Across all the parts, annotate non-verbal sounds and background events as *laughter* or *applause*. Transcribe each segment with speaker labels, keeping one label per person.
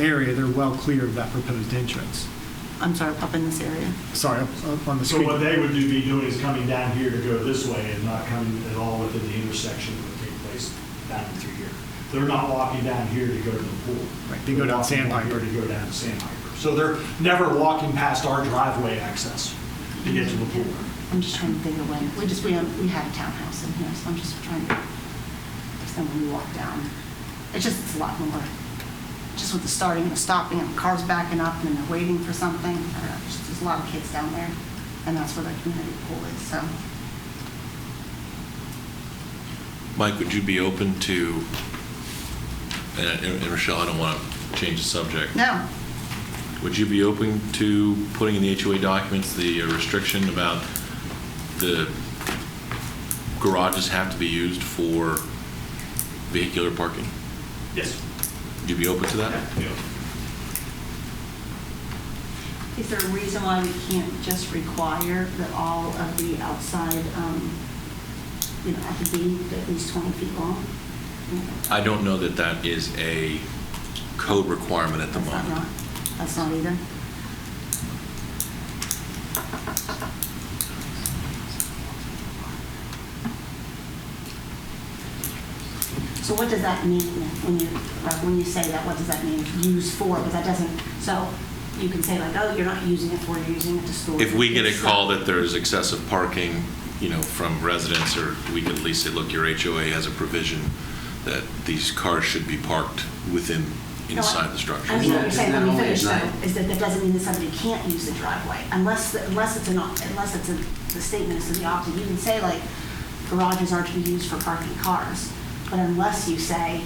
Speaker 1: area, they're well clear of that proposed entrance.
Speaker 2: I'm sorry, up in this area.
Speaker 1: Sorry, up- up on the
Speaker 3: So
Speaker 1: street.
Speaker 3: what they would do- be doing is coming down here to go this way and not coming at all within the intersection that would take place down through here. They're not walking down here to go to the pool.
Speaker 1: Right, they go down
Speaker 3: They're walking
Speaker 1: Sandpiper.
Speaker 3: here To go down to Sandpiper. So they're never walking past our driveway access to get to the pool.
Speaker 2: I'm just trying to think of when, we just, we, um, we had a townhouse in here, so I'm just trying to, so when we walk down, it's just, it's a lot more. Just with the starting and the stopping and cars backing up and then they're waiting for something, I don't know, just- there's a lot of kids down there. And that's where the community pool is, so.
Speaker 4: Mike, would you be open to, and and Rochelle, I don't want to change the subject.
Speaker 2: No,
Speaker 4: Would you be open to putting in the HOA documents the uh, restriction about the garages have to be used for vehicular parking?
Speaker 3: Yes.
Speaker 4: Would you be open to that?
Speaker 2: Is there a reason why we can't just require that all of the outside, um, you know, have to be at least 20 feet long?
Speaker 4: I don't know that that is a code requirement at the
Speaker 2: That's not
Speaker 4: moment.
Speaker 2: right. That's not either? So what does that mean when you, like, when you say that, what does that mean, use for? Because that doesn't, so you can say like, oh, you're not using it for, you're using it to store.
Speaker 4: If we get a
Speaker 2: your
Speaker 4: call
Speaker 2: stuff.
Speaker 4: that there's excessive parking, you know, from residents, or we could at least say, look, your HOA has a provision that these cars should be parked within,
Speaker 2: No, I-
Speaker 4: inside the structure.
Speaker 2: I mean, what you're saying, let me
Speaker 5: Not only
Speaker 2: finish
Speaker 5: at
Speaker 2: though,
Speaker 5: night.
Speaker 2: is that that doesn't mean that somebody can't use the driveway, unless, the- unless it's an, op- unless it's a, the statement is to the opposite. You can say like, garages are to be used for parking cars, but unless you say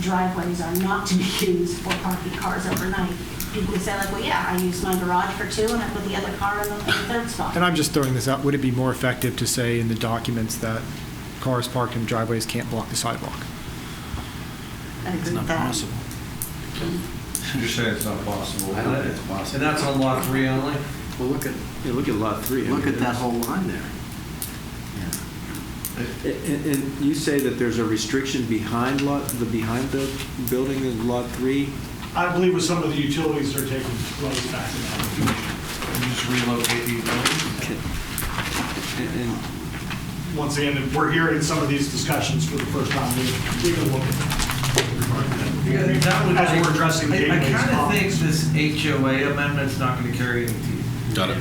Speaker 2: driveways are not to be *laughs* used for parking cars overnight, people say like, well, yeah, I use my garage for two and I put the other car in the in the third spot.
Speaker 1: And I'm just throwing this out, would it be more effective to say in the documents that cars parked in driveways can't block the sidewalk?
Speaker 2: I agree with that.
Speaker 6: You're saying it's not possible.
Speaker 5: I don't think it's possible.
Speaker 6: And that's on lot three only?
Speaker 5: Well, look at,
Speaker 7: Yeah, look at lot three. I
Speaker 5: look
Speaker 7: mean,
Speaker 5: at that
Speaker 7: it's-
Speaker 5: whole line there.
Speaker 7: And, and you say that there's a restriction behind lot, the, behind the building in lot three?
Speaker 3: I believe with some of the utilities, they're taking roads back to that,
Speaker 6: You just relocate these buildings?
Speaker 7: And, and
Speaker 3: once again, we're hearing some of these discussions for the first time, we we can look at that. As we're addressing
Speaker 6: I-
Speaker 3: Gateway's
Speaker 6: I kind of think
Speaker 3: problems.
Speaker 6: this HOA amendment's not going to carry any teeth,
Speaker 4: Got it?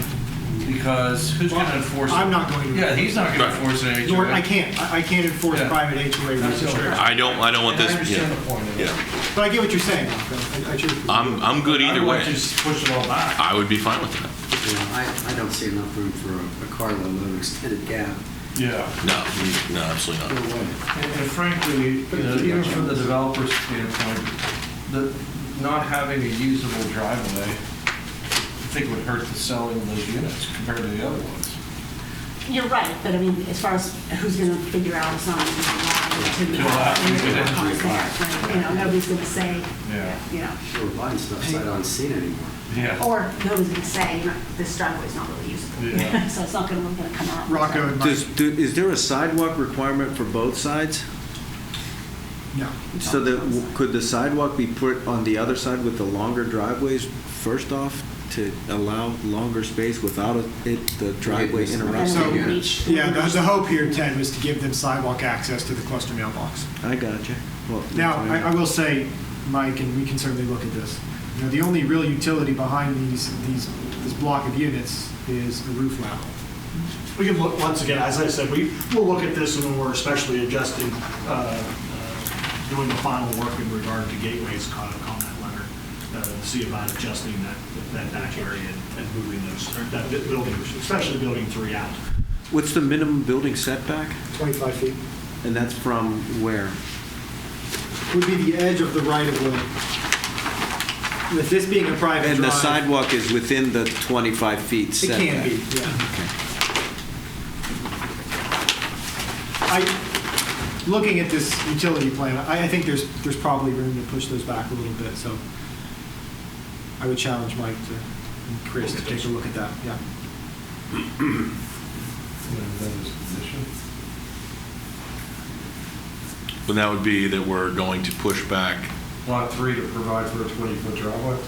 Speaker 6: because who's going to enforce it?
Speaker 1: I'm not going to.
Speaker 6: Yeah, he's not going to
Speaker 4: Right.
Speaker 6: enforce an HOA.
Speaker 1: Nor, I can't, I I can't enforce
Speaker 6: Yeah.
Speaker 1: private HOA
Speaker 6: That's
Speaker 1: restrictions.
Speaker 6: okay.
Speaker 4: I don't, I don't want
Speaker 6: And I
Speaker 4: this.
Speaker 6: understand
Speaker 4: yeah.
Speaker 6: the point of it.
Speaker 4: Yeah.
Speaker 1: But I get what you're saying, Malcolm. I- I truly-
Speaker 4: I'm, I'm good either
Speaker 6: Otherwise,
Speaker 4: way.
Speaker 6: just push it all back.
Speaker 4: I would be fine with that.
Speaker 5: You know, I, I don't see enough room for a- a carload of extended cab.
Speaker 6: Yeah.
Speaker 4: No, no, absolutely
Speaker 5: No
Speaker 4: not.
Speaker 5: way.
Speaker 6: And and frankly, you know, even from the developer's standpoint, the, not having a usable driveway, I think would hurt the selling of those units compared to the other ones.
Speaker 2: You're right, but I mean, as far as who's going to figure out it's not going to be
Speaker 6: Till after you get into it.
Speaker 2: You know, nobody's going to say,
Speaker 6: Yeah.
Speaker 2: you know,
Speaker 5: We're buying stuff sight unseen anymore.
Speaker 3: Oh,
Speaker 6: Yeah.
Speaker 2: or nobody's going to say, you know, this driveway's not really usable.
Speaker 6: Yeah.
Speaker 2: So it's not going to, going to come out.
Speaker 1: Rocco and Mike,
Speaker 7: Does, do- is there a sidewalk requirement for both sides?
Speaker 1: no.
Speaker 7: So that, could the sidewalk be put on the other side with the longer driveways first off to allow longer space without it, the driveway
Speaker 5: Right.
Speaker 7: interrupts?
Speaker 1: So,
Speaker 5: Right. Yeah.
Speaker 1: yeah, the the hope here, Ted, was to give them sidewalk access to the cluster mailbox.
Speaker 7: I got you. Well,
Speaker 1: Now, I, I will say, Mike, and we can certainly look at this, you know, the only real utility behind these, these, this block of units is a roof lateral.
Speaker 3: We can look, once again, as I said, we, we'll look at this when we're especially adjusting, uh, uh, doing the final work in regard to Gateway's con- comment letter, uh, see about adjusting that, that back area and- and moving those, or that bu- building, especially building three out.
Speaker 7: What's the minimum building setback?
Speaker 1: 25 feet.
Speaker 7: And that's from where?
Speaker 1: Would be the edge of the right of way. With this being a private drive.
Speaker 7: And the sidewalk is within the 25 feet
Speaker 1: It
Speaker 7: setback?
Speaker 1: can be, yeah. I, looking at this utility plan, I, I think there's, there's probably room to push those back a little bit, so I would challenge Mike to, and Chris to take a look at that, yeah.
Speaker 4: But that would be that we're going to push back
Speaker 6: lot three to provide for a 20-foot driveway?